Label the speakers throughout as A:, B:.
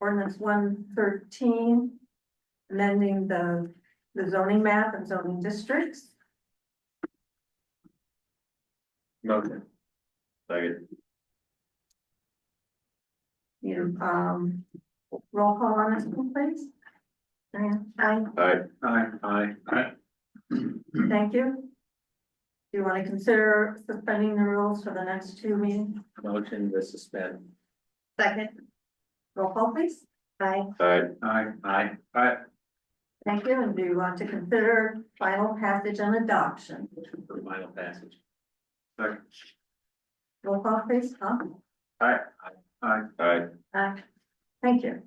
A: ordinance one thirteen. Amending the, the zoning map and zoning districts.
B: Motion. Second.
A: You, um, roll call on this one, please. Diane, aye,
B: Aye. Aye. Aye. Aye.
A: thank you. Do you want to consider suspending the rules for the next two meetings?
B: Motion to suspend.
A: Second. Roll call, please. Aye.
B: Aye. Aye. Aye. Aye.
A: Thank you, and do you want to consider final passage and adoption?
B: For final passage. Second.
A: Roll call, please, huh?
B: Aye. Aye. Aye.
A: Uh, thank you.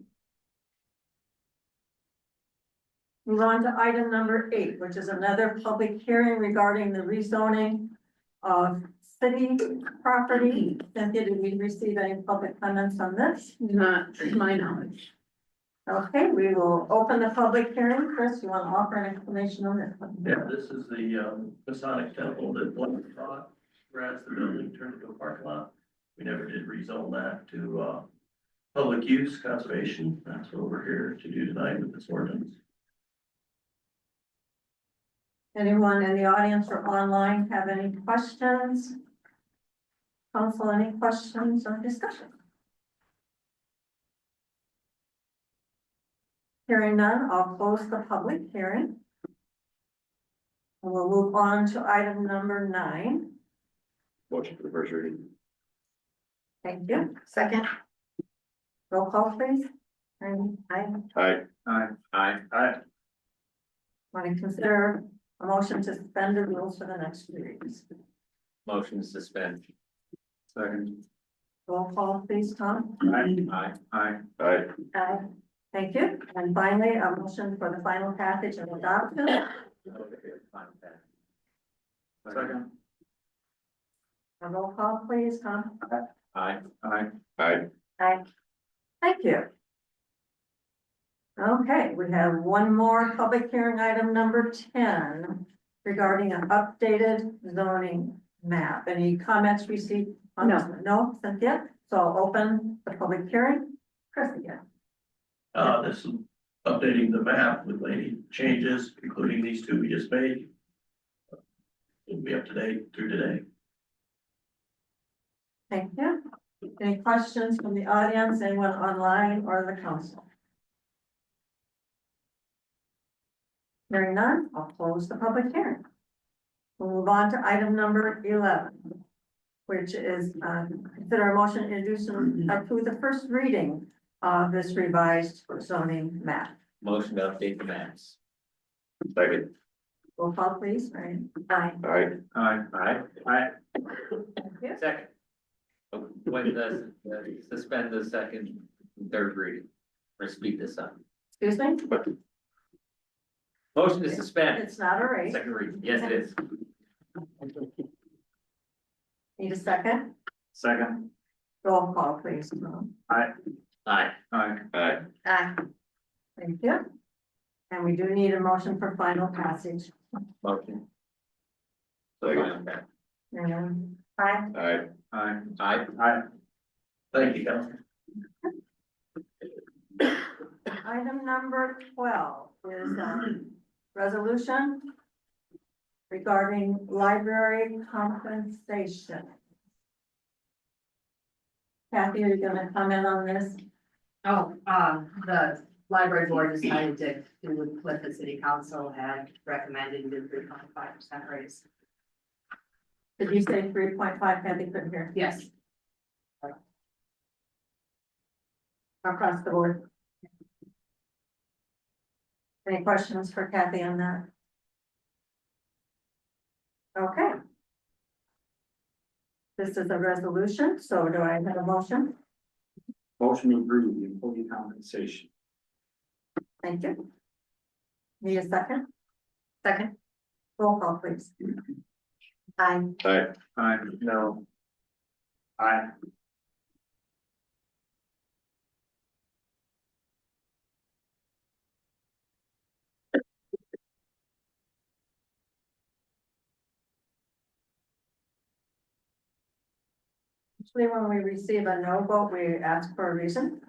A: Move on to item number eight, which is another public hearing regarding the rezoning of city property. Cynthia, did we receive any public comments on this?
C: Not to my knowledge.
A: Okay, we will open the public hearing. Chris, you want to offer an explanation on this? one?
D: Yeah, this is the um, Masonic temple that Blake bought, whereas the building turned into a parking lot. We never did rezone that to uh, public use conservation. That's what we're here to do tonight with this ordinance.
A: Anyone in the audience or online have any questions? Council, any questions or discussion? Hearing none, I'll close the public hearing. And We'll move on to item number nine.
B: Motion for the first reading.
A: Thank you. Second. Roll call please. And I
B: Aye. Aye. Aye. Aye.
A: want to consider a motion to suspend the rules for the next few readings.
B: Motion to suspend. Second.
A: Roll call please, Tom.
B: Aye. Aye. Aye. Aye.
A: Uh, thank you. And finally, a motion for the final passage and adoption.
B: Second.
A: A roll call, please, Tom.
B: Aye. Aye. Aye.
A: Aye. Thank you. Okay, we have one more public hearing item number ten regarding an updated zoning map. Any comments received? on this one? No, Cynthia? So I'll open the public hearing. Chris again.
D: Uh, This is updating the map with any changes, including these two we just made. It'll be up to date through today.
A: Thank you. Any questions from the audience, anyone online or the council? Hearing none, I'll close the public hearing. We'll move on to item number eleven, which is, um, consider a motion to introduce and approve the first reading of this revised zoning map.
B: Motion to update the maps. Second.
A: Roll call please, right? Aye.
B: Aye. Aye. Aye. Aye.
A: Thank you.
E: Second. When does, uh, suspend the second, and third reading, or speed this up.
A: Excuse me,
E: Motion to suspend,
A: it's not a race.
E: second reading, yes, it is.
A: Need a second?
B: Second.
A: Roll call please.
E: Aye,
B: Aye. Aye.
A: Aye. Thank you. And we do need a motion for final passage.
E: motion.
B: Second.
A: Um, Aye.
B: Aye. Aye.
E: Aye,
B: Aye.
D: Thank you, Council.
A: item number twelve is a resolution regarding library compensation. Kathy, are you gonna comment on this?
C: Oh, uh, the library board decided to, do what Cliff and city council had recommended the three point five percent raise.
A: Did you say three point five, Kathy couldn't hear,
C: Yes,
A: across the board? Any questions for Kathy on that? Okay. This is a resolution, so do I have a motion?
B: Motion to approve the employee compensation.
A: Thank you. Need a second?
C: Second.
A: Roll call, please. Aye.
B: Aye. Aye. No. Aye.
A: Usually when we receive a no vote, we ask for a reason.